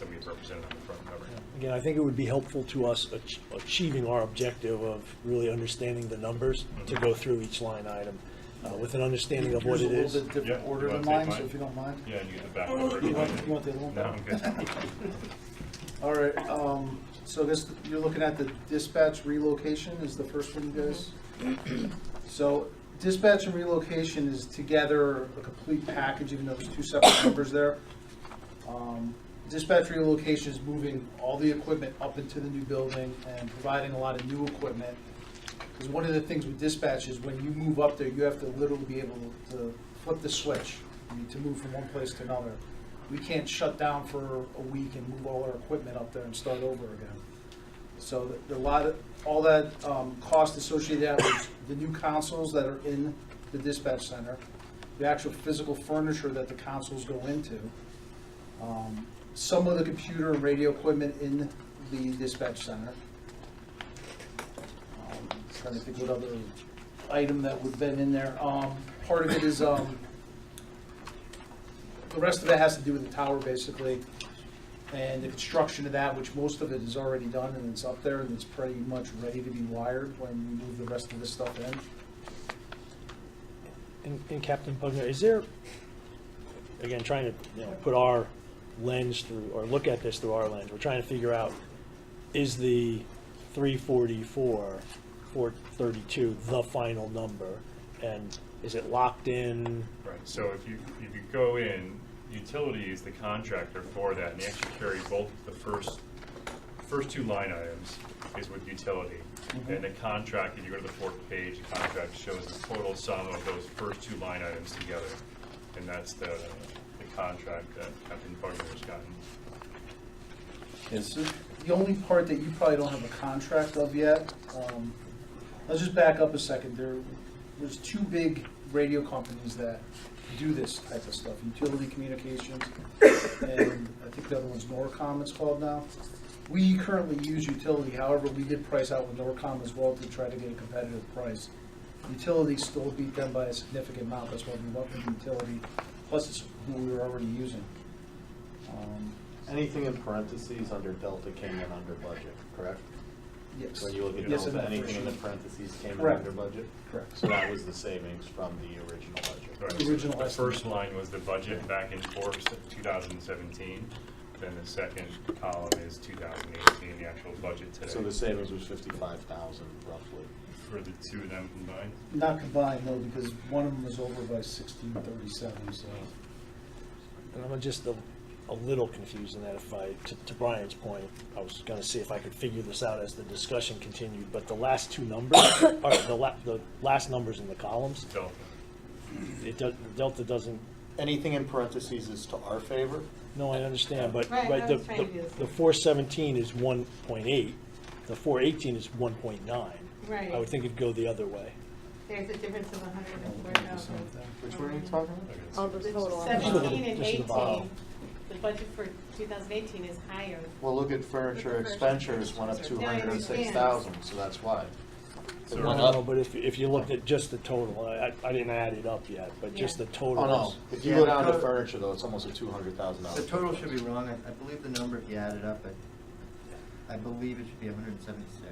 that we've represented on the front cover. Again, I think it would be helpful to us ach- achieving our objective of really understanding the numbers to go through each line item uh, with an understanding of what Yours it a little is. bit different Yeah, order you than wanna take mine, so mine? if you don't mind. Yeah, and you can back Oh, You want, you over. want the little? No, I'm good. All right, um, so this, you're looking at the dispatch relocation is the first one, you guys? Mm-hmm. So dispatch and relocation is together a complete package, even though there's two separate numbers there. Um, Dispatch relocation is moving all the equipment up into the new building and providing a lot of new equipment. Because one of the things with dispatch is when you move up there, you have to literally be able to flip the switch, I mean, to move from one place to another. We can't shut down for a week and move all our equipment up there and start over again. So the- the lot, of- all that um, cost associated with that was the new consoles that are in the dispatch center, the actual physical furniture that the consoles go into, um, some of the computer and radio equipment in the dispatch center. Um, Trying to think what other item that would have been in there. Um, Part of it is, um, the rest of it has to do with the tower, basically, and the construction of that, which most of it is already done and it's up there and it's pretty much ready to be wired when we move the rest of this stuff in. And and Captain Pugner, is there, again, trying to, you know, put our lens through, or look at this through our lens, we're trying to figure out, is the 344, 432 the final number? And is it locked in? Right, so if you, if you go in, utility is the contractor for that, and they actually carry both the first, first two line items is with utility. And the contract, if you go to the fourth page, the contract shows the total sum of those first two line items together. And that's the, the contract that Captain Bugner has gotten. Is it? The only part that you probably don't have a contract of yet, um, let's just back up a second. There, there's two big radio companies that do this type of stuff, Utility Communications, and I think the other one's Norcom it's called now. We currently use Utility, however, we did price out with Norcom as well to try to get a competitive price. Utility still beat them by a significant amount, that's why we went with Utility, plus it's who we were already using. Um, Anything in parentheses under Delta came in under budget, correct? Yes. When you look at Yes, in Delta, the anything in the first sheet. parentheses came in Correct. under budget? Correct. So that was the savings from the original budget. Right, The so original The estimate. first line was the budget back in force of 2017, then the second column is 2018, the actual budget today. So the savings was fifty-five thousand roughly. For the two of them combined? Not combined, no, because one of them was over by sixteen thirty-seven, so. And I'm just a, a little confused in that if I, to, to Brian's point, I was gonna see if I could figure this out as the discussion continued, but the last two numbers, or the la, the last numbers in the columns, Delta. it does, Delta doesn't, Anything in parentheses is to our favor? no, I understand, but, Right, right, I the, was trying to do the the, same. the four seventeen is one point eight, the four eighteen is one point nine. I would Right. think it'd go the other way. There's a difference of hundred and four thousand. Which one are you talking about? Oh, the total. Seventeen and This is the bottom. eighteen, the budget for two thousand eighteen is higher. Well, look at furniture expenditures went up two Yeah, I hundred and six understand. thousand, so that's why. It So- No, went no, up. no, but if, if you looked at just the total, I, I I didn't add it up yet, but just the Yeah. total. Oh, no. is- If you Yeah, go the down to total- furniture though, it's almost a two hundred thousand dollar. The total should be wrong, I, I believe the number, if you add it up, I, I believe it should be hundred and seventy-six.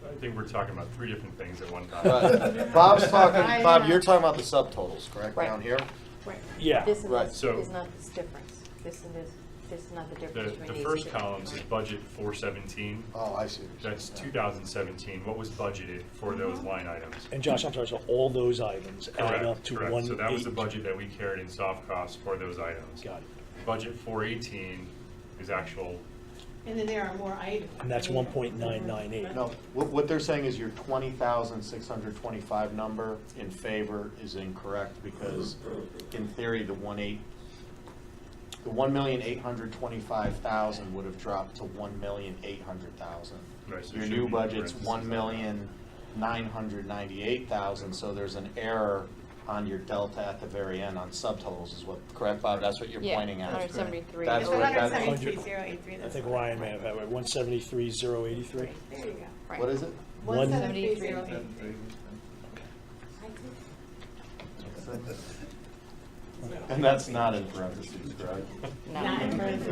I think we're talking about three different things at one time. Right. Bob's talking, I Bob, know. you're talking about the subtotals, correct, down here? Right. Yeah. This and Right, this so- is not this difference. This and this, this is not the difference The, between the these. first two. column is Right. budget 417. Oh, I see. what you're saying. That's 2017. What was budgeted for those line items? And Josh, I'm sorry, so all those items add up Correct, to correct. one. So that was the eight. budget that we carried in soft costs for those items. Got it. Budget 418 is actual, And then there are more items. And that's one point nine nine eight. No, what, what they're saying is your twenty thousand six hundred twenty-five number in favor is incorrect because in theory, the one eight, the one million eight hundred twenty-five thousand would have dropped to one million eight hundred thousand. Right, so it Your should new be budget's parentheses. one million nine hundred ninety-eight thousand, so there's an error on your delta at the very end on subtotals is what, correct, Bob? That's what you're Yeah, pointing at. 173. That's It's It's what, hundred that's, seventy-three, zero eight three. I think Ryan may have had it, one seventy-three, zero eighty-three. There you go. Right. what is it? One- One seventy-three, zero eight three. And that's not in parentheses, correct? Not in parentheses.